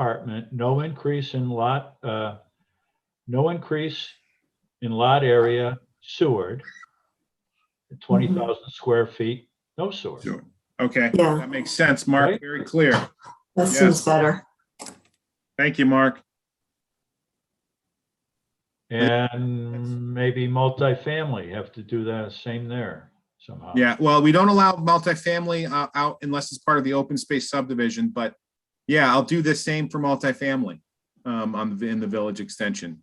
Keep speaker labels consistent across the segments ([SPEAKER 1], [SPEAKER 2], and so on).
[SPEAKER 1] department, no increase in lot, uh, no increase in lot area Seward. Twenty thousand square feet, no sewer.
[SPEAKER 2] Sure. Okay,
[SPEAKER 3] Yeah.
[SPEAKER 2] that makes sense, Mark.
[SPEAKER 1] Right?
[SPEAKER 2] Very clear.
[SPEAKER 3] That
[SPEAKER 2] Yes.
[SPEAKER 3] seems better.
[SPEAKER 2] Thank you, Mark.
[SPEAKER 1] And maybe multifamily, have to do the same there somehow.
[SPEAKER 2] Yeah, well, we don't allow multifamily uh, out unless it's part of the open space subdivision, but yeah, I'll do the same for multifamily um, on the, in the village extension.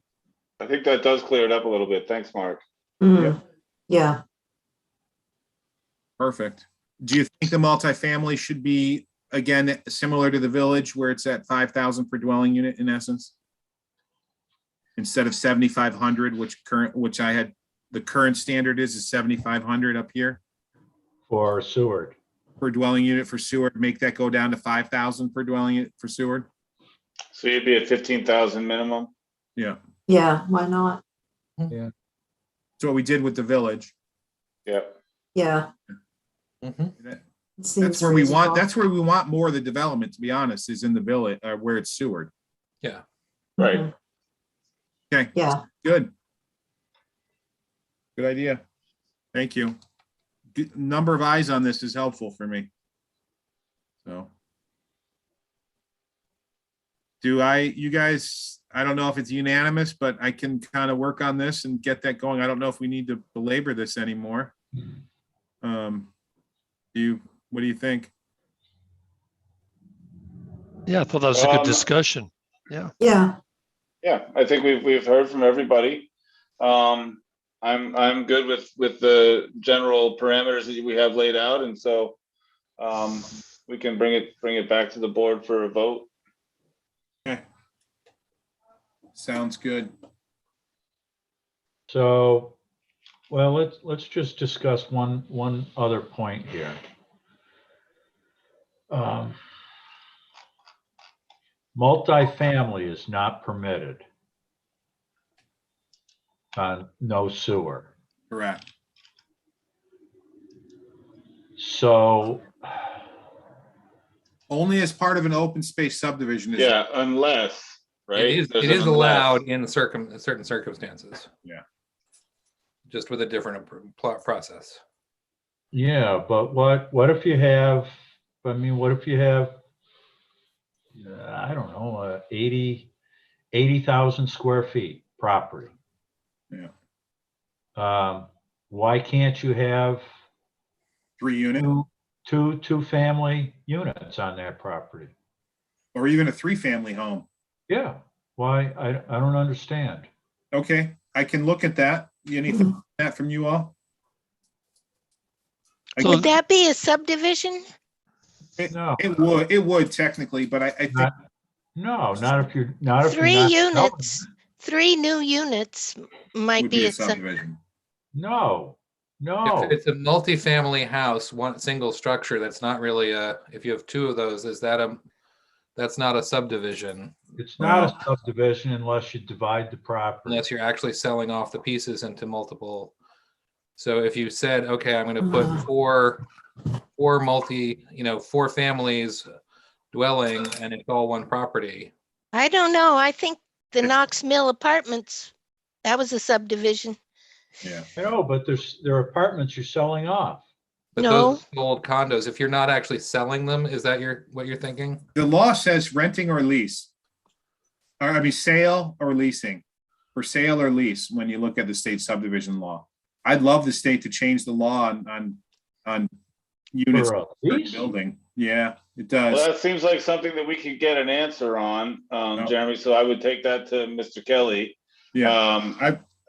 [SPEAKER 4] I think that does clear it up a little bit. Thanks, Mark.
[SPEAKER 3] Mm, yeah,
[SPEAKER 2] Perfect. Do you think the multifamily should be, again, similar to the village where it's at five thousand per dwelling unit in essence? Instead of seventy-five hundred, which current, which I had, the current standard is is seventy-five hundred up here
[SPEAKER 1] For Seward.
[SPEAKER 2] per dwelling unit for Seward, make that go down to five thousand per dwelling unit for Seward?
[SPEAKER 4] So you'd be at fifteen thousand minimum?
[SPEAKER 2] Yeah,
[SPEAKER 3] yeah, why not?
[SPEAKER 2] that's what we did with the village.
[SPEAKER 4] Yep.
[SPEAKER 3] Yeah.
[SPEAKER 2] That-
[SPEAKER 3] It
[SPEAKER 2] That's
[SPEAKER 3] seems
[SPEAKER 2] where we want,
[SPEAKER 3] reasonable.
[SPEAKER 2] that's where we want more of the development, to be honest, is in the village, uh, where it's Seward.
[SPEAKER 4] Right.
[SPEAKER 3] Mhm.
[SPEAKER 2] Okay.
[SPEAKER 3] Yeah,
[SPEAKER 2] Good. Good idea. Thank you. Good- Number of eyes on this is helpful for me. So. Do I, you guys, I don't know if it's unanimous, but I can kind of work on this and get that going. I don't know if we need to belabor this anymore. Um, do you, what do you think?
[SPEAKER 5] Yeah, I thought that was a good
[SPEAKER 4] Um,
[SPEAKER 5] discussion.
[SPEAKER 3] yeah,
[SPEAKER 4] Yeah, I think we've, we've heard from everybody. Um, I'm, I'm good with, with the general parameters that we have laid out, and so um, we can bring it, bring it back to the board for a vote.
[SPEAKER 2] Sounds good.
[SPEAKER 1] So, well, let's, let's just discuss one, one other point here. Um, Multifamily is not permitted on no sewer.
[SPEAKER 2] Correct.
[SPEAKER 1] So
[SPEAKER 2] Only as part of an open space subdivision. is-
[SPEAKER 4] Yeah, unless, right?
[SPEAKER 6] It is,
[SPEAKER 4] There's
[SPEAKER 6] it
[SPEAKER 4] an
[SPEAKER 6] is allowed in circum, certain circumstances.
[SPEAKER 2] Yeah.
[SPEAKER 6] Just with a different appro- pl- process.
[SPEAKER 1] Yeah, but what, what if you have, I mean, what if you have, uh, I don't know, uh, eighty, eighty thousand square feet property?
[SPEAKER 2] Yeah.
[SPEAKER 1] Um, why can't you have
[SPEAKER 2] Three unit
[SPEAKER 1] two, two, two-family units on that property?
[SPEAKER 2] or even a three family home.
[SPEAKER 1] Yeah, why, I, I don't understand.
[SPEAKER 2] Okay, I can look at that. Anything
[SPEAKER 1] Mm-hmm.
[SPEAKER 2] on that from you all?
[SPEAKER 5] So-
[SPEAKER 7] Would that be a subdivision?
[SPEAKER 1] No,
[SPEAKER 2] It would, it would technically, but I, I think,
[SPEAKER 1] Not- no, not if you're, not if you're
[SPEAKER 7] Three
[SPEAKER 1] not selling
[SPEAKER 7] units, three new units
[SPEAKER 2] it would
[SPEAKER 7] might
[SPEAKER 2] be a
[SPEAKER 7] sub-
[SPEAKER 2] subdivision.
[SPEAKER 1] No, no.
[SPEAKER 4] Oh.
[SPEAKER 6] If it's a multifamily house, one single structure, that's not really a, if you have two of those, is that a, that's not a subdivision
[SPEAKER 1] It's not a subdivision unless you divide the property.
[SPEAKER 6] unless you're actually selling off the pieces into multiple. So if you said, okay, I'm gonna put
[SPEAKER 3] Mhm.
[SPEAKER 6] four, four multi, you know, four families dwelling and it's all one property.
[SPEAKER 7] I don't know. I think the Knox Mill Apartments, that was a subdivision.
[SPEAKER 2] Yeah,
[SPEAKER 1] No, but there's, there are apartments you're selling off.
[SPEAKER 6] But those old condos, if you're not actually selling them, is that your, what you're thinking?
[SPEAKER 2] the law says renting or lease. Or I mean, sale or leasing, for sale or lease, when you look at the state subdivision law. I'd love the state to change the law on, on, on units
[SPEAKER 1] for a
[SPEAKER 2] per
[SPEAKER 1] lease.
[SPEAKER 2] building. Yeah, it does.
[SPEAKER 4] Well, that seems like something that we could get an answer on, um,
[SPEAKER 2] No.
[SPEAKER 4] Jeremy, so I would take that to Mr. Kelly.
[SPEAKER 2] Yeah,
[SPEAKER 4] Um,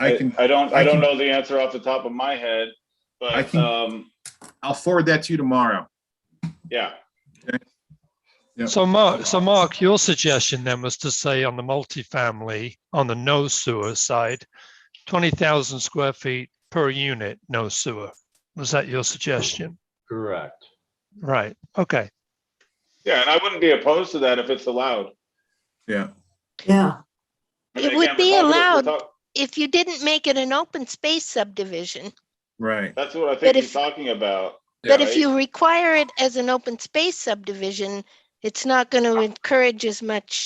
[SPEAKER 2] I can,
[SPEAKER 4] I don't,
[SPEAKER 2] I
[SPEAKER 4] I don't
[SPEAKER 2] can-
[SPEAKER 4] know the answer off the top of my head,
[SPEAKER 2] I
[SPEAKER 4] but,
[SPEAKER 2] can-
[SPEAKER 4] um,
[SPEAKER 2] I'll forward that to you tomorrow.
[SPEAKER 4] yeah.
[SPEAKER 2] Yeah.
[SPEAKER 5] So Mark, Oh, so Mark, your suggestion then was to say on the multifamily, on the no sewer side, twenty thousand square feet per unit, no sewer. Was that your suggestion?
[SPEAKER 1] Correct.
[SPEAKER 5] Right, okay.
[SPEAKER 4] Yeah, and I wouldn't be opposed to that if it's allowed.
[SPEAKER 2] Yeah,
[SPEAKER 3] yeah,
[SPEAKER 4] I
[SPEAKER 7] It
[SPEAKER 4] mean,
[SPEAKER 7] would
[SPEAKER 4] again, we're
[SPEAKER 7] be
[SPEAKER 4] talking- we're
[SPEAKER 7] allowed.
[SPEAKER 4] talk-
[SPEAKER 7] If you didn't make it an open space subdivision,
[SPEAKER 2] right.
[SPEAKER 4] That's what I think
[SPEAKER 7] But
[SPEAKER 4] he's
[SPEAKER 7] if-
[SPEAKER 4] talking about.
[SPEAKER 7] but
[SPEAKER 4] right?
[SPEAKER 7] if you require it as an open space subdivision, it's not going to encourage as much